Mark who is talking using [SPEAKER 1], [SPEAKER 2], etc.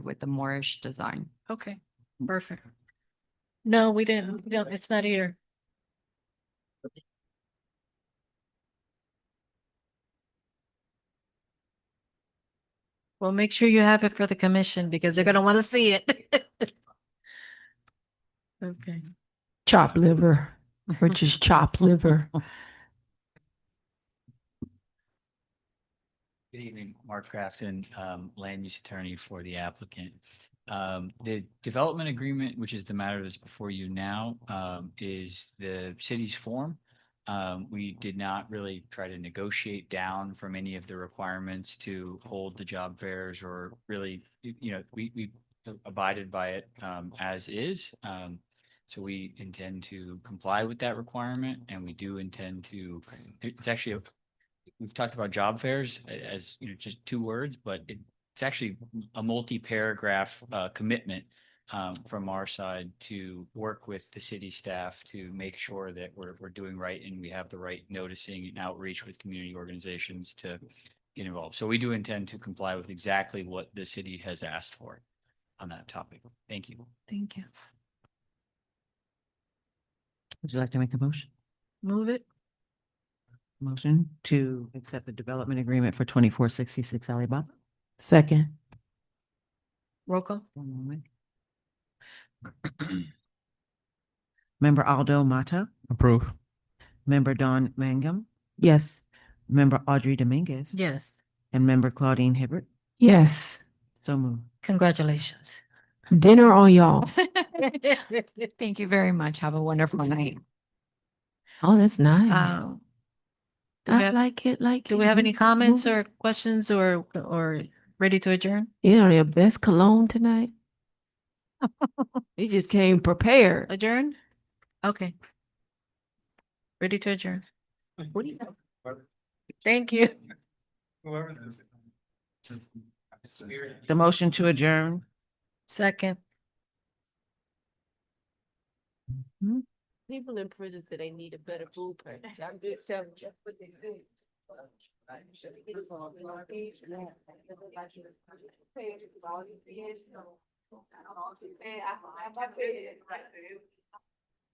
[SPEAKER 1] with the Moorish design.
[SPEAKER 2] Okay, perfect. No, we didn't. No, it's not here. Well, make sure you have it for the commission because they're gonna want to see it. Okay,
[SPEAKER 3] Chop liver, which is chop liver.
[SPEAKER 4] Good evening, Mark Crafton, um, land use attorney for the applicant. Um, the development agreement, which is the matter that's before you now, um, is the city's form. Um, we did not really try to negotiate down from any of the requirements to hold the job fairs or really, you you know, we, we abided by it, um, as is. Um, so we intend to comply with that requirement and we do intend to, it's actually a we've talked about job fairs a- as, you know, just two words, but it- it's actually a multi-paragraph uh, commitment um, from our side to work with the city staff to make sure that we're, we're doing right and we have the right noticing and outreach with community organizations to get involved. So we do intend to comply with exactly what the city has asked for on that topic. Thank you.
[SPEAKER 2] thank you.
[SPEAKER 5] Would you like to make a motion?
[SPEAKER 2] Move it.
[SPEAKER 5] Motion to accept the development agreement for twenty-four sixty-six Alibaba?
[SPEAKER 3] Second,
[SPEAKER 2] Roll call.
[SPEAKER 5] One moment. Member Aldo Mata,
[SPEAKER 6] Approve.
[SPEAKER 5] member Don Mangum,
[SPEAKER 3] yes.
[SPEAKER 5] member Audrey Dominguez.
[SPEAKER 2] Yes,
[SPEAKER 5] And member Claudine Hibbert.
[SPEAKER 3] Yes.
[SPEAKER 5] So moved.
[SPEAKER 2] congratulations.
[SPEAKER 3] Dinner on y'all.
[SPEAKER 1] Thank you very much. Have a wonderful night.
[SPEAKER 3] Oh, that's nice.
[SPEAKER 2] Um, do we
[SPEAKER 3] I
[SPEAKER 2] have-
[SPEAKER 3] Uh, like it, like.
[SPEAKER 2] Do we
[SPEAKER 3] it.
[SPEAKER 2] have any
[SPEAKER 3] Move
[SPEAKER 2] comments
[SPEAKER 3] it.
[SPEAKER 2] or questions or, or ready to adjourn?
[SPEAKER 3] You know, your best cologne tonight. You just came prepared.
[SPEAKER 2] Adjourn? Okay. Ready to adjourn. Thank you.
[SPEAKER 5] The motion to adjourn.
[SPEAKER 2] Second.
[SPEAKER 3] People in prison say they need a better blueprint. I'm just telling you what they think.